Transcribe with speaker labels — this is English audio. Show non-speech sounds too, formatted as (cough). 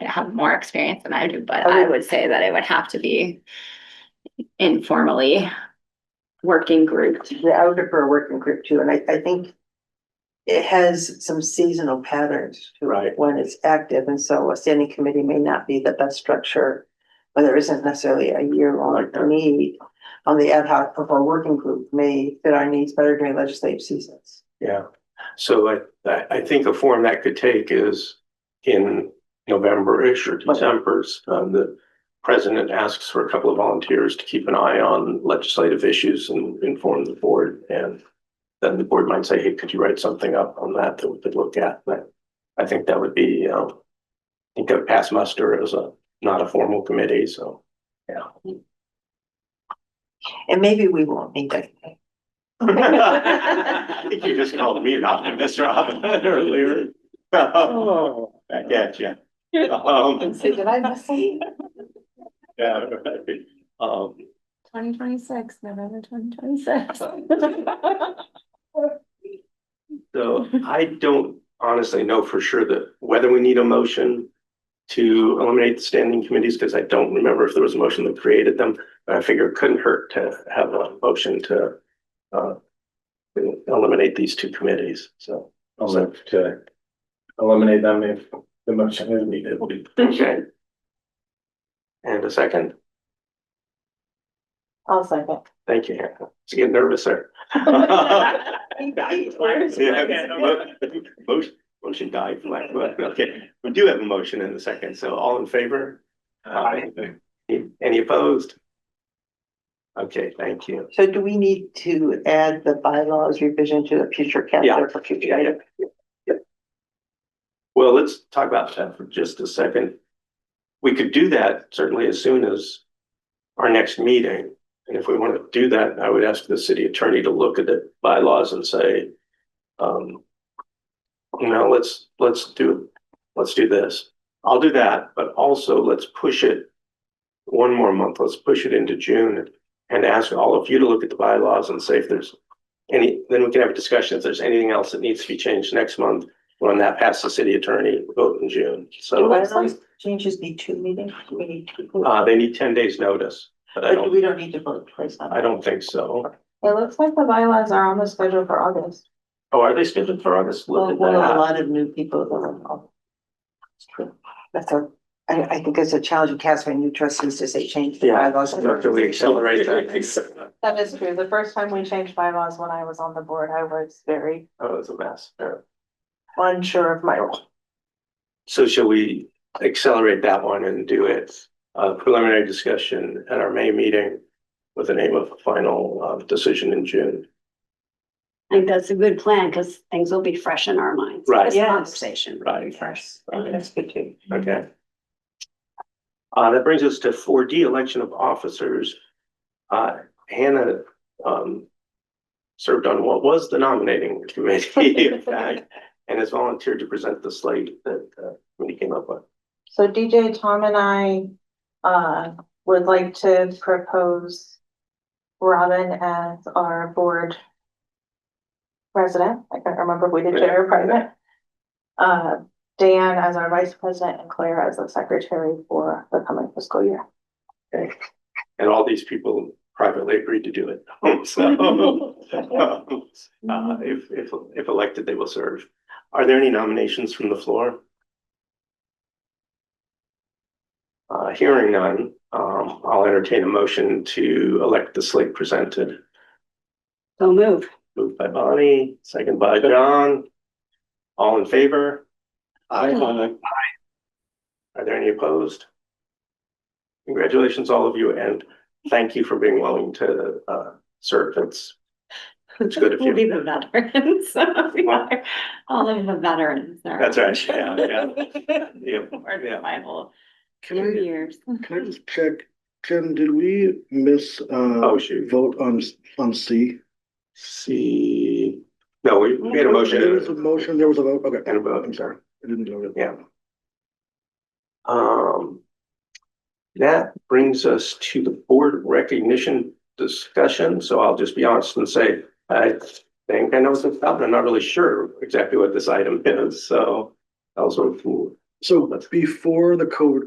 Speaker 1: have more experience than I do, but I would say that it would have to be informally working group.
Speaker 2: Yeah, I would prefer a working group too, and I, I think it has some seasonal patterns to it
Speaker 3: Right.
Speaker 2: when it's active, and so a standing committee may not be the best structure. But there isn't necessarily a year-long
Speaker 3: Like that.
Speaker 2: need on the ad hoc of our working group may fit our needs better during legislative seasons.
Speaker 3: Yeah, so I, I, I think a form that could take is in November-ish or December's, um, the president asks for a couple of volunteers to keep an eye on legislative issues and inform the board, and then the board might say, hey, could you write something up on that that we could look at? But I think that would be, um, I think of pass muster as a, not a formal committee, so.
Speaker 2: And maybe we won't need that.
Speaker 3: I think you just called me an optimist, Rob, (laughs) earlier.
Speaker 2: Oh.
Speaker 3: I get you. Um,
Speaker 4: So did I miss something?
Speaker 3: (laughs) yeah, right. Um,
Speaker 4: Twenty twenty-six, November twenty twenty-six.
Speaker 3: so I don't honestly know for sure that whether we need a motion to eliminate the standing committees, because I don't remember if there was a motion that created them, but I figure it couldn't hurt to have a motion to uh to eliminate these two committees, so.
Speaker 5: I'll move to eliminate them if the motion is needed.
Speaker 3: Okay. And a second,
Speaker 2: I'll
Speaker 3: (laughs)
Speaker 2: second. (laughs)
Speaker 3: thank you, Hannah. It's getting nervous there. Yeah, mo- Motion, motion died, for lack of a- okay, we do have a motion in a second, so all in favor? Aye. Any opposed? Okay, thank you.
Speaker 2: So do we need to add the bylaws revision to the future
Speaker 3: Yeah.
Speaker 2: calendar for future?
Speaker 3: Yeah, yeah, yeah. Well, let's talk about that for just a second. We could do that certainly as soon as our next meeting. And if we want to do that, I would ask the city attorney to look at the bylaws and say, um, you know, let's, let's do, let's do this. I'll do that, but also let's push it one more month. Let's push it into June and ask all of you to look at the bylaws and say if there's any, then we can have a discussion if there's anything else that needs to be changed next month. When that passes the city attorney, we vote in June.
Speaker 2: Do
Speaker 3: So,
Speaker 2: bylaws changes need two meetings? Do we need two?
Speaker 3: uh, they need ten days notice, but I
Speaker 2: But
Speaker 3: don't,
Speaker 2: we don't need to vote twice on
Speaker 3: I
Speaker 2: it.
Speaker 3: don't think so.
Speaker 4: It looks like the bylaws are on the schedule for August.
Speaker 3: Oh, are they scheduled for August? Look
Speaker 2: Well,
Speaker 3: at
Speaker 2: well, a
Speaker 3: that.
Speaker 2: lot of new people that are involved. It's true. That's a, I, I think it's a challenge you cast for new trustees to say change the
Speaker 3: Yeah.
Speaker 2: bylaws.
Speaker 3: After we
Speaker 4: (laughs)
Speaker 2: (laughs)
Speaker 3: accelerate that.
Speaker 4: That is true. The first time we changed bylaws when I was on the board, I was very
Speaker 3: Oh, it's a mess. Yeah.
Speaker 4: unsure of my role.
Speaker 3: So shall we accelerate that one and do it, uh, preliminary discussion at our May meeting with the name of a final, uh, decision in June?
Speaker 6: I think that's a good plan because things will be fresh in our minds.
Speaker 3: Right.
Speaker 6: This
Speaker 2: Yes.
Speaker 6: Conversation.
Speaker 3: Right.
Speaker 6: Fresh.
Speaker 2: That's good too.
Speaker 3: Okay. Uh, that brings us to four D, election of officers. Uh, Hannah, um, served on what was the nominating committee, in fact, and has volunteered to present the slate that, uh, committee came up with.
Speaker 4: So DJ, Tom and I, uh, would like to propose Robin as our board president. I can't remember if we did chair or president. Uh, Dan as our vice president and Claire as the secretary for the coming fiscal year.
Speaker 3: And all these people privately agreed to do it. (laughs) So, (laughs) uh, if, if, if elected, they will serve. Are there any nominations from the floor? Uh, hearing none, um, I'll entertain a motion to elect the slate presented.
Speaker 6: So move.
Speaker 3: Moved by Bonnie, second by John. All in favor?
Speaker 5: Aye.
Speaker 3: Are there any opposed? Congratulations, all of you, and thank you for being willing to uh serve. It's, it's good of
Speaker 6: We'll be
Speaker 3: you.
Speaker 6: the
Speaker 1: (laughs)
Speaker 6: veterans. We are All of the veterans. are-
Speaker 3: That's right, yeah,
Speaker 1: (laughs)
Speaker 3: yeah. Yep,
Speaker 6: Or the
Speaker 3: yeah.
Speaker 6: final
Speaker 7: Can
Speaker 6: two
Speaker 7: I,
Speaker 6: years.
Speaker 7: can I just check, Ken, did we miss,
Speaker 3: Oh,
Speaker 7: uh,
Speaker 3: shoot.
Speaker 7: vote on, s- on C?
Speaker 3: See, no, we we had a
Speaker 7: There was a
Speaker 3: motion.
Speaker 7: motion, there was a vote, okay.
Speaker 3: And a vote.
Speaker 7: I'm sorry, I didn't know that.
Speaker 3: Yeah. Um, that brings us to the board recognition discussion, so I'll just be honest and say, I think I know what's about, but I'm not really sure exactly what this item is, so. Also,
Speaker 7: So before the COVID